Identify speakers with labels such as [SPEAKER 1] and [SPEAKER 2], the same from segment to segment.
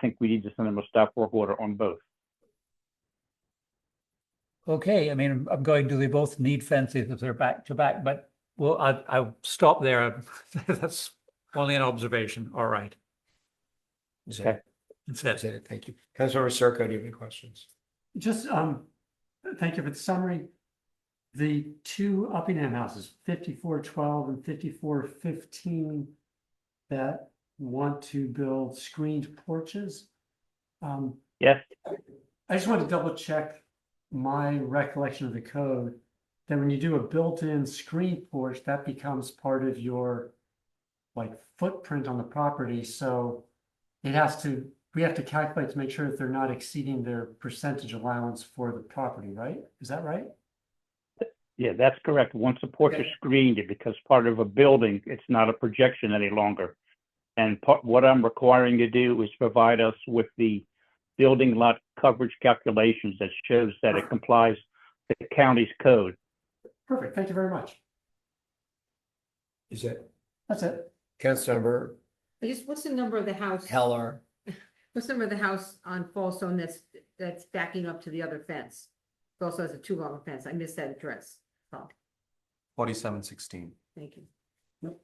[SPEAKER 1] think we need to send them a stop work order on both.
[SPEAKER 2] Okay, I mean, I'm- I'm going, do they both need fences if they're back to back? But well, I, I'll stop there. That's only an observation. All right.
[SPEAKER 3] Is
[SPEAKER 1] Okay.
[SPEAKER 3] that,
[SPEAKER 2] That's
[SPEAKER 3] is
[SPEAKER 2] it.
[SPEAKER 3] that it? Thank you. Councilmember Circo, do you have any questions?
[SPEAKER 4] Just, um, thank you for the summary. The two Uppingham houses, fifty-four twelve and fifty-four fifteen, that want to build screened porches. Um,
[SPEAKER 1] Yes,
[SPEAKER 4] I just want to double check my recollection of the code. That when you do a built-in screened porch, that becomes part of your like footprint on the property, so it has to, we have to calculate to make sure that they're not exceeding their percentage allowance for the property, right? Is that right?
[SPEAKER 1] yeah, that's correct. Once a porch is
[SPEAKER 4] Okay.
[SPEAKER 1] screened, it becomes part of a building. It's not a projection any longer. And part, what I'm requiring to do is provide us with the building lot coverage calculations that shows that it complies the county's code.
[SPEAKER 4] Perfect, thank you very much.
[SPEAKER 3] Is that
[SPEAKER 4] That's it.
[SPEAKER 3] Councilmember
[SPEAKER 5] I guess, what's the number of the house?
[SPEAKER 3] Heller?
[SPEAKER 5] What's the number of the house on Fallstone that's, that's backing up to the other fence? It also has a two long fence. I missed that address. Oh,
[SPEAKER 6] Forty-seven sixteen.
[SPEAKER 5] thank you.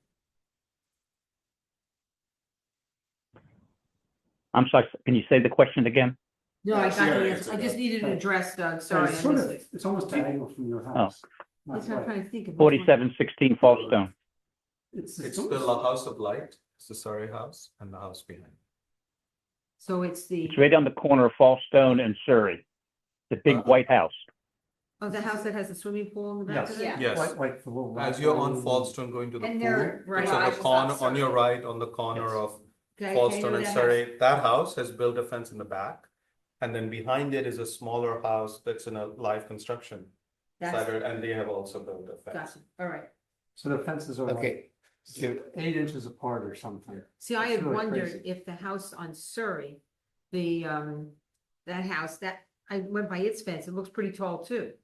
[SPEAKER 1] I'm sorry, can you say the question again?
[SPEAKER 5] No, I
[SPEAKER 6] Yeah, I
[SPEAKER 5] got
[SPEAKER 6] see how
[SPEAKER 5] the
[SPEAKER 6] it
[SPEAKER 5] answer. I
[SPEAKER 6] is,
[SPEAKER 5] just
[SPEAKER 6] okay.
[SPEAKER 5] needed an
[SPEAKER 4] Right.
[SPEAKER 5] address, Doug.
[SPEAKER 4] So
[SPEAKER 5] Sorry.
[SPEAKER 4] It's
[SPEAKER 5] I
[SPEAKER 4] sort
[SPEAKER 5] missed
[SPEAKER 4] of,
[SPEAKER 5] it.
[SPEAKER 4] it's almost diagonal from your house. Not
[SPEAKER 5] That's what I'm
[SPEAKER 4] quite.
[SPEAKER 5] trying to think of.
[SPEAKER 1] Forty-seven sixteen Fallstone.
[SPEAKER 4] It's,
[SPEAKER 6] It's
[SPEAKER 4] it's
[SPEAKER 6] the
[SPEAKER 4] almost-
[SPEAKER 6] la- house of light, it's the Surrey house and the house behind.
[SPEAKER 5] So it's the,
[SPEAKER 1] It's right on the corner of Fallstone and Surrey. The big white house.
[SPEAKER 5] oh, the house that has the swimming pool in the back
[SPEAKER 4] Yes.
[SPEAKER 5] of it?
[SPEAKER 6] Yes.
[SPEAKER 4] Like, like the little.
[SPEAKER 6] As you're on
[SPEAKER 4] rectangle.
[SPEAKER 6] Fallstone going to the
[SPEAKER 5] And they're
[SPEAKER 6] pool, it's
[SPEAKER 5] right.
[SPEAKER 6] on the corner, on your right, on the corner
[SPEAKER 4] Yes.
[SPEAKER 6] of
[SPEAKER 5] Okay, okay, I know
[SPEAKER 6] Fallstone
[SPEAKER 5] that
[SPEAKER 6] and
[SPEAKER 5] house.
[SPEAKER 6] Surrey. That house has built a fence in the back. And then behind it is a smaller house that's in a live construction
[SPEAKER 5] That's-
[SPEAKER 6] side, and they have also built a fence.
[SPEAKER 5] Gotcha. All right.
[SPEAKER 4] So the fences are like
[SPEAKER 3] Okay. So-
[SPEAKER 4] eight inches apart or something.
[SPEAKER 5] See, I
[SPEAKER 4] It's
[SPEAKER 5] had
[SPEAKER 4] really
[SPEAKER 5] wondered
[SPEAKER 4] crazy.
[SPEAKER 5] if the house on Surrey, the, um, that house, that, I went by its fence, it looks pretty tall too.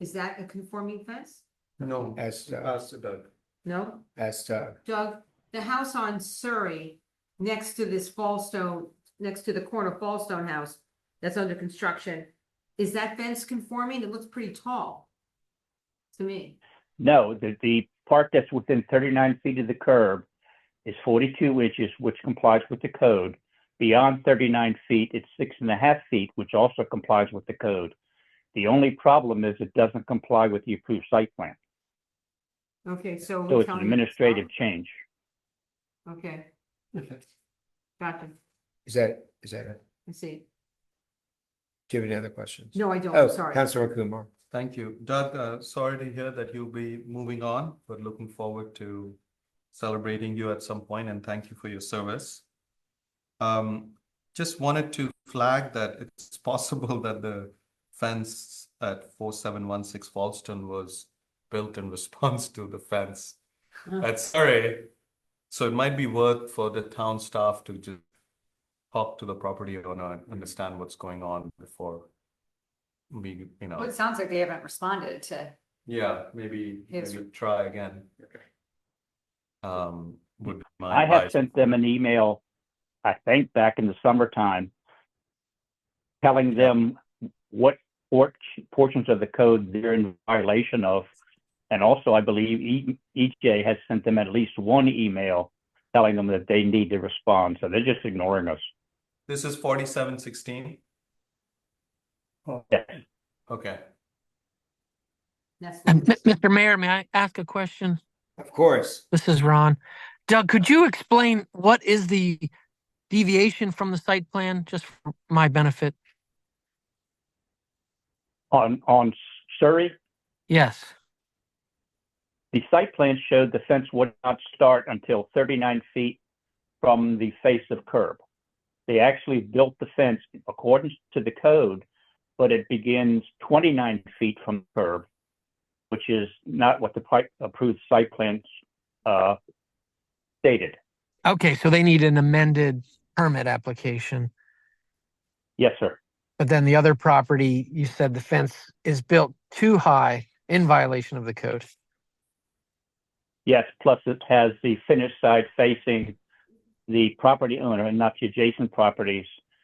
[SPEAKER 5] Is that a conforming fence?
[SPEAKER 6] No,
[SPEAKER 3] As, uh,
[SPEAKER 6] as Doug.
[SPEAKER 5] No?
[SPEAKER 3] as, uh,
[SPEAKER 5] Doug, the house on Surrey, next to this Fallstone, next to the corner Fallstone house, that's under construction, is that fence conforming? It looks pretty tall to me.
[SPEAKER 1] No, the, the part that's within thirty-nine feet of the curb is forty-two inches, which complies with the code. Beyond thirty-nine feet, it's six and a half feet, which also complies with the code. The only problem is it doesn't comply with the approved site plan,
[SPEAKER 5] Okay, so.
[SPEAKER 1] so
[SPEAKER 5] we're
[SPEAKER 1] it's an
[SPEAKER 5] telling-
[SPEAKER 1] administrative change.
[SPEAKER 5] Okay,
[SPEAKER 4] Okay.
[SPEAKER 5] gotcha.
[SPEAKER 3] is that, is that it?
[SPEAKER 5] I see.
[SPEAKER 3] Do you have any other questions?
[SPEAKER 5] No, I don't,
[SPEAKER 3] Oh,
[SPEAKER 5] I'm sorry.
[SPEAKER 3] Councilmember Kumar.
[SPEAKER 6] Thank you. Doug, uh, sorry to hear that you'll be moving on, but looking forward to celebrating you at some point and thank you for your service. Um, just wanted to flag that it's possible that the fence at four seven one six Falston was built in response to the fence
[SPEAKER 5] Oh.
[SPEAKER 6] at Surrey. So it might be worth for the town staff to just talk to the property owner and understand what's going on before we, you know.
[SPEAKER 7] Well, Oh, it sounds like they haven't responded to,
[SPEAKER 6] Yeah, maybe,
[SPEAKER 7] Yes.
[SPEAKER 6] maybe try again. Um, would be my
[SPEAKER 1] I have
[SPEAKER 6] advice.
[SPEAKER 1] sent them an email, I think back in the summertime, telling them what por- portions of the code they're in violation of. And also, I believe E- EJ has sent them at least one email telling them that they need to respond. So they're just ignoring us.
[SPEAKER 6] This is forty-seven sixteen,
[SPEAKER 4] Well,
[SPEAKER 1] Yes.
[SPEAKER 6] okay.
[SPEAKER 5] That's-
[SPEAKER 8] M- Mr. Mayor, may I ask a question?
[SPEAKER 3] Of course.
[SPEAKER 8] This is Ron. Doug, could you explain what is the deviation from the site plan, just for my benefit?
[SPEAKER 1] On, on Surrey,
[SPEAKER 8] Yes.
[SPEAKER 1] the site plan showed the fence would not start until 39 feet from the face of curb. They actually built the fence in accordance to the code, but it begins 29 feet from curb, which is not what the pri- approved site plans uh, stated.
[SPEAKER 8] Okay, so they need an amended permit application.
[SPEAKER 1] Yes, sir.
[SPEAKER 8] But then the other property, you said the fence is built too high in violation of the code.
[SPEAKER 1] Yes, plus it has the finished side facing the property owner and not the adjacent properties.